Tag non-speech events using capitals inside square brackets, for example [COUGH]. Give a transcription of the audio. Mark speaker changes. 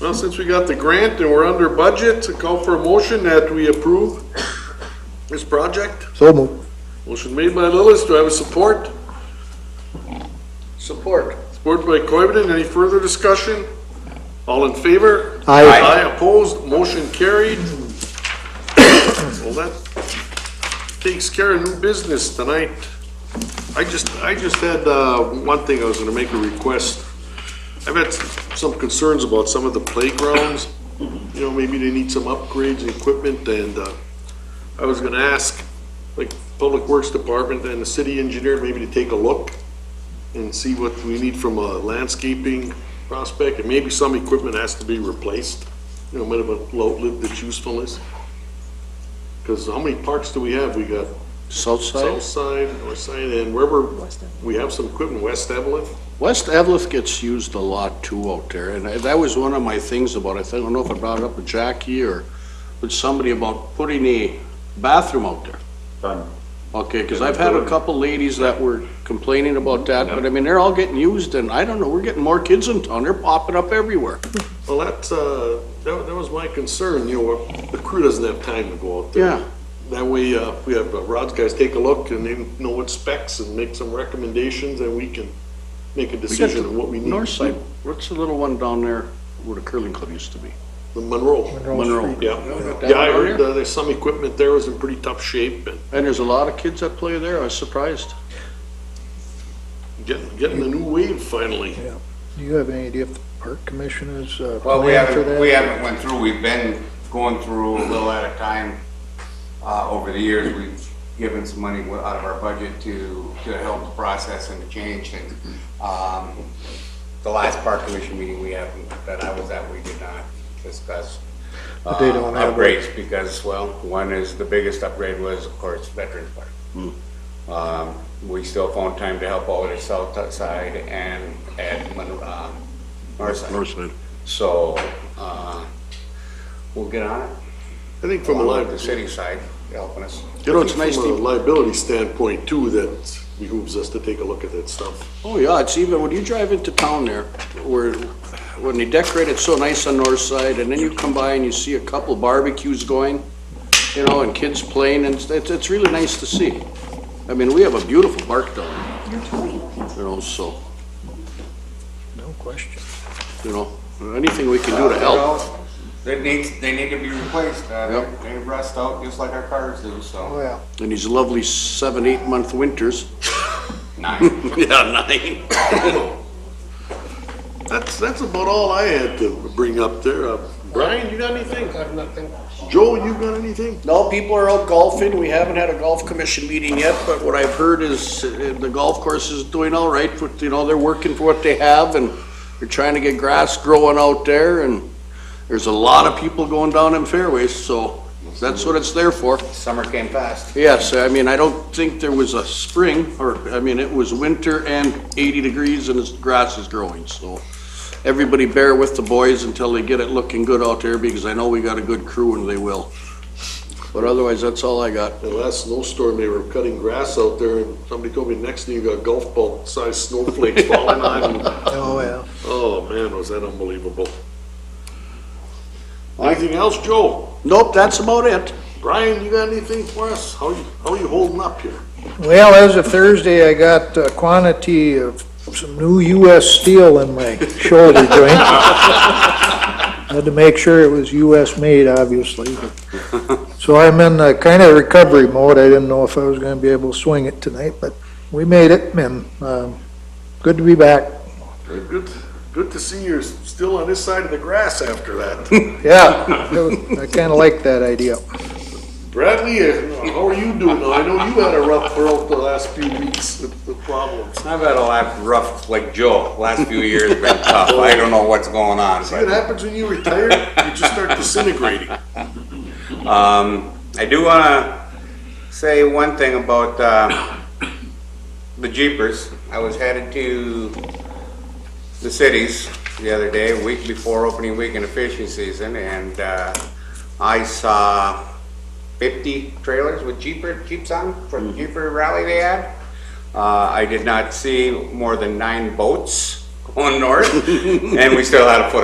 Speaker 1: Well, since we got the grant and we're under budget, to call for a motion that we approve this project.
Speaker 2: So moved.
Speaker 1: Motion made by Lillis, do I have a support?
Speaker 3: Support.
Speaker 1: Support by Coivinon, any further discussion? All in favor?
Speaker 2: Aye.
Speaker 1: Aye opposed, motion carried. Well, that takes care of new business tonight. I just, I just had, uh, one thing, I was gonna make a request. I've had some concerns about some of the playgrounds, you know, maybe they need some upgrades, and equipment, and, uh, I was gonna ask, like, Public Works Department and the city engineer maybe to take a look and see what we need from a landscaping prospect, and maybe some equipment has to be replaced, you know, might have outlived its usefulness. Because how many parks do we have? We got
Speaker 2: South
Speaker 1: south
Speaker 2: side?
Speaker 1: side, north side, and wherever, we have some equipment, West Evelyn.
Speaker 2: West Evlith gets used a lot too out there, and that was one of my things about, it. I don't know if I brought it up with Jackie or with somebody about putting a bathroom out there.
Speaker 4: Done.
Speaker 2: Okay, because I've had a couple ladies that were complaining about that, but I mean, they're all getting used, and I don't know, we're getting more kids in town, they're popping up everywhere.
Speaker 1: Well, that's, uh, that, that was my concern, you know, the crew doesn't have time to go out there.
Speaker 2: Yeah.
Speaker 1: That way, uh, we have uh, Rod's guys take a look and they know what specs and make some recommendations, and we can make a
Speaker 2: We got
Speaker 1: decision
Speaker 2: the
Speaker 1: on what we need.
Speaker 2: North side, what's the little one down there where the curling club used to be?
Speaker 1: The Monroe.
Speaker 2: Monroe.
Speaker 1: Yeah,
Speaker 2: That
Speaker 1: yeah, I
Speaker 2: one
Speaker 1: heard
Speaker 2: there?
Speaker 1: uh, there's some equipment there was in pretty tough shape and
Speaker 2: And there's a lot of kids that play there, I was surprised.
Speaker 1: getting, getting a new wave finally.
Speaker 5: Do you have any idea if the park commission is uh,
Speaker 4: Well, we
Speaker 5: planning for
Speaker 4: haven't,
Speaker 5: that?
Speaker 4: we haven't went through, we've been going through a little at a time. Uh, over the years, we've given some money wa- out of our budget to, to help the process and to change things. Um, the last park commission meeting we had, that I was at, we did not discuss.
Speaker 5: But they don't
Speaker 4: uh,
Speaker 5: have a-
Speaker 4: Upgrades, because, well, one is, the biggest upgrade was, of course, Veterans Park. Um, we still found time to help all the south side and, and, Mon- uh, north side.
Speaker 2: North side.
Speaker 4: So, uh, we'll get on it.
Speaker 1: I think from a
Speaker 4: Along with
Speaker 1: li-
Speaker 4: The city side helping us.
Speaker 1: You know, it's
Speaker 2: I think
Speaker 1: nice
Speaker 2: from
Speaker 1: from a
Speaker 2: a
Speaker 1: liability standpoint too, that behooves us to take a look at that stuff.
Speaker 2: Oh, yeah, it's even, when you drive into town there, where, when they decorate it so nice on north side, and then you come by and you see a couple barbecues going, you know, and kids playing, and it's, it's really nice to see. I mean, we have a beautiful park down there. You know, so,
Speaker 5: No question.
Speaker 2: you know, anything we can do to help.
Speaker 4: They need, they need to be replaced. Uh, they-
Speaker 2: Yep.
Speaker 4: They rust out just like our cars do, so.
Speaker 5: Well,
Speaker 2: In these lovely seven, eight-month winters. [LAUGHS]
Speaker 4: Nine.
Speaker 2: Yeah, nine.
Speaker 1: That's, that's about all I had to bring up there. Uh, Brian, you got anything? I have nothing. Joe, you got anything?
Speaker 2: No, people are out golfing. We haven't had a golf commission meeting yet, but what I've heard is uh, the golf course is doing all right. But, you know, they're working for what they have and they're trying to get grass growing out there and there's a lot of people going down in fairways, so that's what it's there for.
Speaker 4: Summer came fast.
Speaker 2: Yes, I mean, I don't think there was a spring or, I mean, it was winter and eighty degrees and the grass is growing, so. Everybody bear with the boys until they get it looking good out there because I know we got a good crew and they will. But otherwise, that's all I got.
Speaker 1: The last snowstorm, they were cutting grass out there and somebody told me next thing you got golf ball sized snowflakes falling [LAUGHS] on.
Speaker 5: oh, well.
Speaker 1: Oh, man, was that unbelievable. Anything else, Joe?
Speaker 2: Nope, that's about it.
Speaker 1: Brian, you got anything for us? How you, how you holding up here?
Speaker 5: Well, as of Thursday, I got a quantity of some new US steel in my
Speaker 4: [LAUGHS]
Speaker 5: shoulder joint. Had to make sure it was US made, obviously. but- So I'm in a kind of recovery mode. I didn't know if I was gonna be able to swing it tonight, but we made it and, um, good to be back.
Speaker 1: Good, good to see you're still on this side of the grass after [LAUGHS] that.
Speaker 5: Yeah, I kinda like that idea.
Speaker 1: Bradley, uh, how are you doing? I know you had a rough throat the last few weeks with the problems.
Speaker 4: I've had a lot of rough, like Joe, last few years have been tough. I don't know what's going on,
Speaker 1: It
Speaker 4: but,
Speaker 1: happens when you retire, you just start disintegrating.
Speaker 4: um, I do wanna say one thing about, uh, the Jeepers. I was headed to the cities the other day, a week before opening week in the fishing season, and, uh, I saw fifty trailers with Jeeper, Jeeps on, for the Jeeper rally they had. Uh, [LAUGHS] I did not see more than nine boats on north, and we still had a foot of